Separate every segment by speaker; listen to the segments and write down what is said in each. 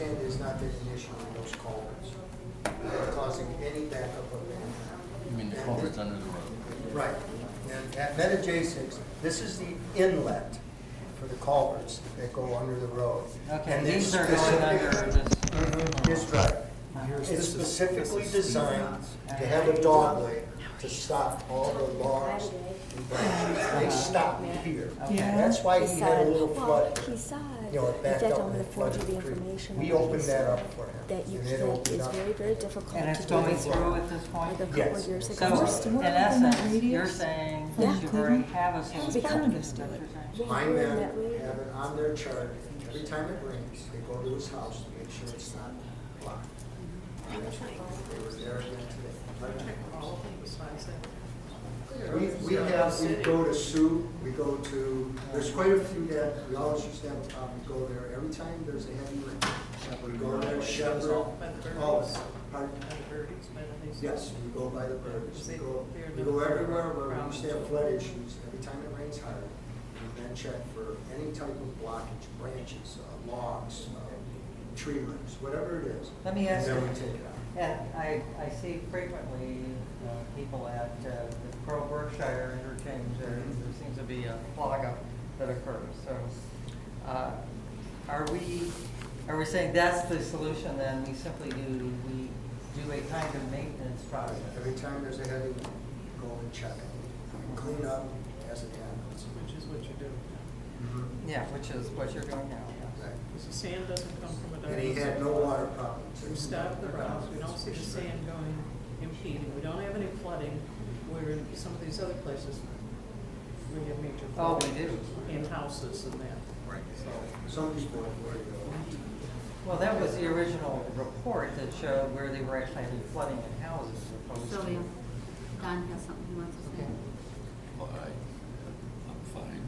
Speaker 1: And there's not been an issue in those culverts causing any backup of any
Speaker 2: You mean the culvert's under the road?
Speaker 1: kind. Right. And at Meta J six, this is the inlet for the culverts that go under the road.
Speaker 2: Okay,
Speaker 1: And they're
Speaker 2: these are going under
Speaker 1: specific- Mhm, It's
Speaker 2: this.
Speaker 1: right. It's specifically designed to have a dogleg to stop all the logs and branches. They stop here.
Speaker 2: Yeah.
Speaker 1: That's why he had a little
Speaker 3: Well,
Speaker 1: flood.
Speaker 3: he said
Speaker 1: You know, it backed
Speaker 3: that
Speaker 1: up
Speaker 3: I'm
Speaker 1: and
Speaker 3: gonna
Speaker 1: it
Speaker 3: forward
Speaker 1: flooded
Speaker 3: you the
Speaker 1: the creek.
Speaker 3: information.
Speaker 1: We
Speaker 3: that he
Speaker 1: opened that
Speaker 3: said
Speaker 1: up for him.
Speaker 3: That you
Speaker 1: and it
Speaker 3: can't,
Speaker 1: opened
Speaker 3: it's
Speaker 1: up.
Speaker 3: very, very difficult
Speaker 4: And it's
Speaker 3: to do
Speaker 4: going
Speaker 3: this
Speaker 4: through at this point?
Speaker 3: like a couple
Speaker 1: Yes.
Speaker 3: of years
Speaker 1: So,
Speaker 3: ago.
Speaker 1: Yes.
Speaker 4: So, in essence, you're saying
Speaker 3: Yeah.
Speaker 4: that you already have a solution.
Speaker 3: Because-
Speaker 4: That's what you're saying.
Speaker 3: Yeah,
Speaker 1: My
Speaker 3: we're in
Speaker 1: men
Speaker 3: that way.
Speaker 1: have it on their chart, every time it rains, they go to his house to make sure it's not blocked. And that's what They were there again today. We, we have, we go to Sue, we go to, there's quite a few that, we always used to have a problem, we go there every time there's a heavy rain. We go there, Shepherd, oh, pardon? Yes, we go by the birds, we go, we go everywhere where we used to have flood issues, every time it rains hard, we then check for any type of blockage, branches, uh, logs, uh, tree limbs, whatever it is.
Speaker 4: Let me ask
Speaker 1: And
Speaker 4: you-
Speaker 1: then we take it out.
Speaker 4: And I, I see frequently uh, people at uh, the Pearl Berkshire interchange, there
Speaker 1: Mm-hmm.
Speaker 4: there seems to be a clog up that occurs, so. uh, Are we, are we saying that's the solution then, we simply do, we do a kind of maintenance process?
Speaker 1: Every time there's a heavy rain, we go and check it, clean up as it happens.
Speaker 5: Which is what you do. Mm-hmm.
Speaker 4: Yeah, which is what you're doing now, yes.
Speaker 1: Right.
Speaker 5: Because the sand doesn't come from a
Speaker 1: And he had no water problems.
Speaker 5: We stop the routes, we don't see the sand going impeding, we don't have any flooding, where in some of these other places, we have major
Speaker 4: Oh,
Speaker 5: flooding.
Speaker 4: we do.
Speaker 5: In houses and that.
Speaker 1: Right. Some people have worried though.
Speaker 4: Well, that was the original report that showed where they were actually having flooding in houses as opposed to.
Speaker 6: Sylvia, Don has something he wants to say.
Speaker 7: Well, I, I'm fine.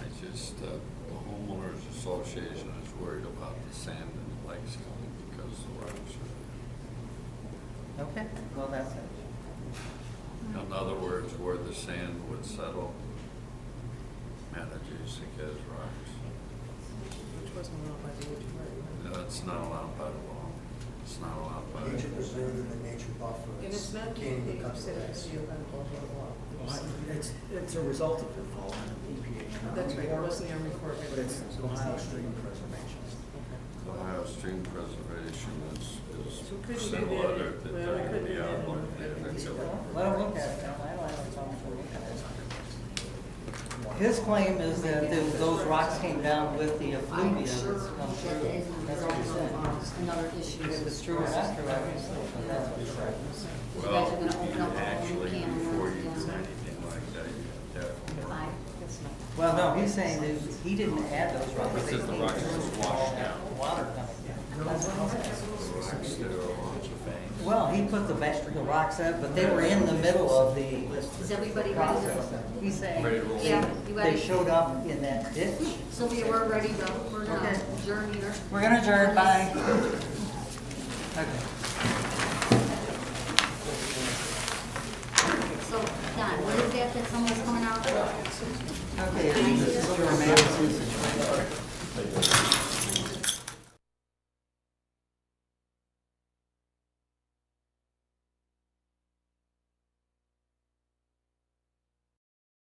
Speaker 7: I just, uh, the homeowners association is worried about the sand and the lakes coming because the rocks
Speaker 5: Mm-hmm.
Speaker 7: are.
Speaker 4: Okay, well, that's it.
Speaker 7: In other words, where the sand would settle, manages to get rocks.
Speaker 5: Which wasn't allowed by the HOA. right?
Speaker 7: That's not allowed by the law. It's not allowed by.
Speaker 1: Nature preserve and the nature buffer.
Speaker 5: And it's not
Speaker 1: Can't even
Speaker 5: DEP,
Speaker 1: come to
Speaker 5: said
Speaker 1: that.
Speaker 5: it's the event, blah, blah, blah.
Speaker 8: It's, it's a result of involvement in EPA.
Speaker 5: That's right, it wasn't the Army Corps of
Speaker 8: But it's
Speaker 5: Engineers.
Speaker 8: Ohio Stream Preservation.
Speaker 7: Ohio Stream Preservation
Speaker 5: So couldn't
Speaker 7: is,
Speaker 5: you
Speaker 7: is
Speaker 5: do
Speaker 7: similar
Speaker 5: that?
Speaker 7: to the,
Speaker 5: Well, we couldn't
Speaker 7: the,
Speaker 5: do
Speaker 7: the
Speaker 5: that in
Speaker 7: outlook
Speaker 5: our-
Speaker 7: there. That's a-
Speaker 4: Well, Let him look at it, Tom. I don't have a problem with looking at it. His claim is that th- those rocks came down with the effluvia
Speaker 6: I'm
Speaker 4: that's
Speaker 6: sure
Speaker 4: come
Speaker 6: that
Speaker 4: through.
Speaker 6: is
Speaker 4: That's what he said.
Speaker 6: another issue.
Speaker 4: If it's true or not true, I don't know, but that's what he said.
Speaker 6: You
Speaker 7: Well,
Speaker 6: guys are gonna open
Speaker 7: you
Speaker 6: up a whole new
Speaker 7: actually,
Speaker 6: can of
Speaker 7: before
Speaker 6: worms
Speaker 7: you do
Speaker 6: again.
Speaker 7: anything like that, you have to have homework.
Speaker 6: I,
Speaker 4: Well, no, he's saying that he didn't add those rocks. They
Speaker 7: Because the
Speaker 4: came
Speaker 7: rocks
Speaker 4: through
Speaker 7: was
Speaker 4: with
Speaker 7: washed
Speaker 4: all that
Speaker 7: out.
Speaker 4: Water coming down. That's what he said.
Speaker 7: Rocks that are along the banks.
Speaker 4: Well, he put the ba- the rocks up, but they were in the middle of the
Speaker 6: is everybody ready to?
Speaker 4: process. He's saying
Speaker 7: Ready to roll.
Speaker 6: Yeah,
Speaker 4: they
Speaker 6: you ready?
Speaker 4: showed up in that ditch.
Speaker 6: Sylvia, we're ready to, we're gonna
Speaker 4: Okay.
Speaker 6: adjourn here.
Speaker 4: We're gonna adjourn, bye. Okay.
Speaker 6: So, Don, what is that that someone's coming out with?
Speaker 4: Okay, and this is your man, Susan.